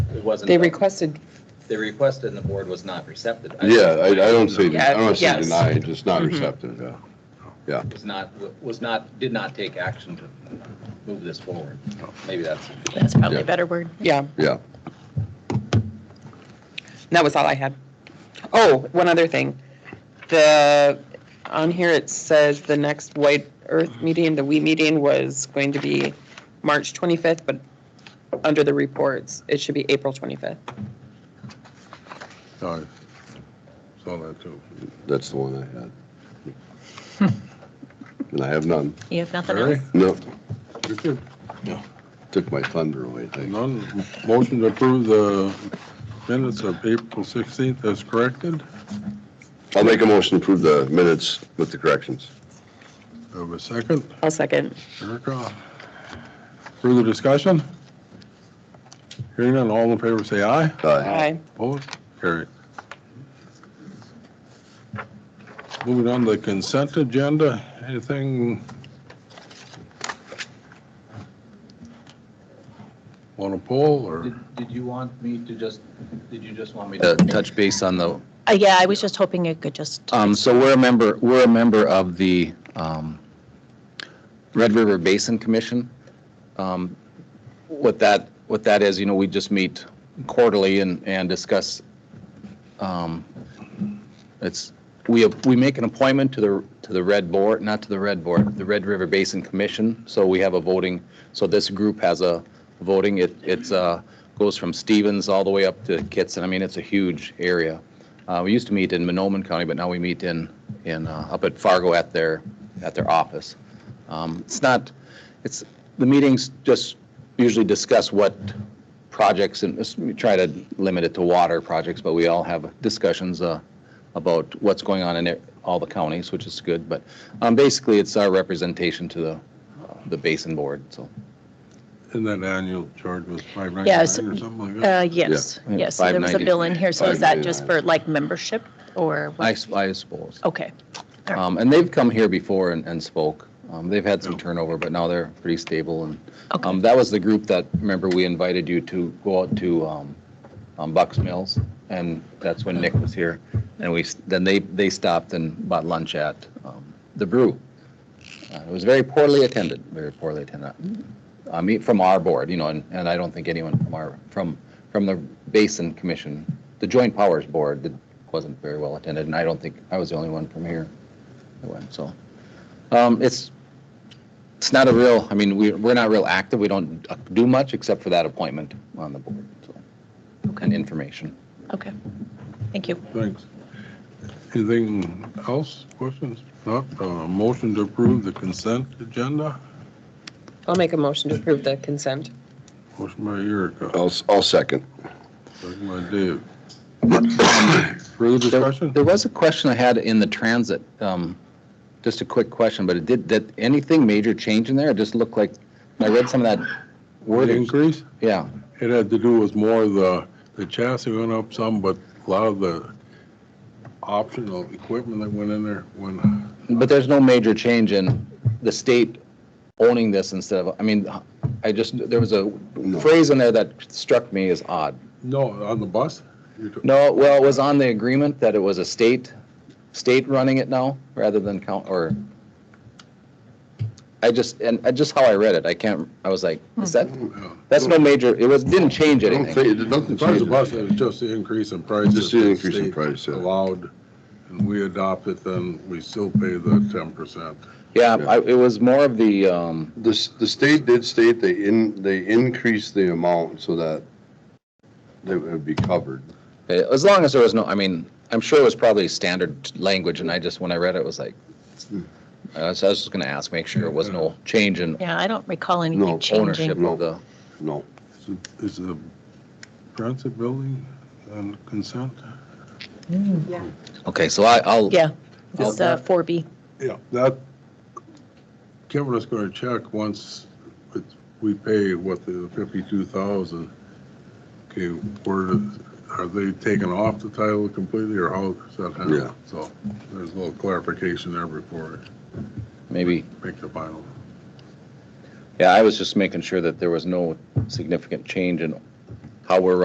it wasn't. They requested, They requested and the board was not receptive. Yeah, I, I don't say, No, I don't say Yes. denied, just not Mhm. receptive. Was not, was not, did not take action to move this forward. Maybe that's. That's probably Yeah. a better word. yeah, Yeah, that was all I had. Oh, one other thing. The, on here it says the next White Earth meeting, the we meeting was going to be March 25th, but under the reports, it should be April 25th. Sorry. Saw that too. that's the one I had. And I have none. You have nothing Really? else? No, You're good. took my thunder away, thanks. None, motion to approve the minutes of April 16th as corrected. I'll make a motion to approve the minutes with the corrections. Have a second, I'll second. Erica. Further discussion? Hearing none, all in favor say aye. Aye. Aye. Opposed? Carried. Moving on to the consent agenda, anything? Want to poll or? Did did you want me to just, did you just want me uh, to? touch base on the, Uh, yeah, I was just hoping it could just, um, so we're a member, we're a member of the um, Red River Basin Commission. Um, What that, what that is, you know, we just meet quarterly and, and discuss, um, it's, we, we make an appointment to the, to the Red Board, not to the Red Board, the Red River Basin Commission, so we have a voting, so this group has a voting, it, it's, uh, goes from Stevens all the way up to Kitson, I mean, it's a huge area. Uh, We used to meet in Monoman County, but now we meet in, in, uh, up at Fargo at their, at their office. Um, It's not, it's, the meetings just usually discuss what projects, and s- we try to limit it to water projects, but we all have discussions uh, about what's going on in it- all the counties, which is good, but um, basically, it's our representation to the, uh, the basin board, so. And that annual charge was five ninety-nine or Yes. something like that? uh, yes, Yeah. yes. So there was a 590. bill in here, so is that just 599. for like membership or? what? I s- I suppose. Okay, Um, And they've come here before and and spoke. Um, They've had some Yeah. turnover, but now they're pretty stable. And Okay. um, that was the group that, remember, we invited you to go out to um, um, Bucks Mills, and that's when Nick was here. And we, s- then they, they stopped and bought lunch at um, the Brew. Uh, It was very poorly attended, very poorly attended. I mean, from our board, you know, and and I don't think anyone from our, from, from the Basin Commission, the Joint Powers Board, that wasn't very well attended, and I don't think, I was the only one from here that went, so. Um, It's, it's not a real, I mean, we, we're not real active, we don't do much except for that appointment on the board, so, and okay, information. okay. Thank you. Thanks. Anything else, questions? Not, uh, motion to approve the consent agenda? I'll make a motion to approve the consent. Motion by Erica, I'll, s- I'll second. second by Dave. Further discussion? There was a question I had in the transit, um, just a quick question, but it did, did anything major change in there? It just looked like, I read some of that Word wording, increase? yeah. It had to do with more of the, the chassis went up some, but a lot of the optional equipment that went in there went, But there's no major change in the state owning this instead of, I mean, I just, there was a phrase in there that struck me as odd. no, on the bus? You're t- No, well, it was on the agreement that it was a state, state running it now, rather than count, or, I just, and I- just how I read it, I can't, I was like, is that, yeah. that's no major, it was, didn't change I don't anything. think, nothing As far as the bus, changes. it was just the increase in prices. Just the that increase in state price, yeah. Allowed, and we adopt it, then we still pay the ten percent. Yeah, I, it was more of the, um, The, s- the state did state they in, they increased the amount so that they would be covered. eh, as long as there was no, I mean, I'm sure it was probably standard language, and I just, when I read it, was like, I was, I was just gonna ask, make sure it was no change in Yeah, I don't recall No, anything changing. ownership of the, No. Is the transit building on consent? okay, so I, I'll, Yeah, it's uh, 4B. Yeah. That, Kevin is gonna check once it's- we pay what the fifty-two thousand. Okay, where, are they taking off the title completely or how does that Yeah. happen? So there's a little clarification there before maybe I make the final. Yeah, I was just making sure that there was no significant change in how we're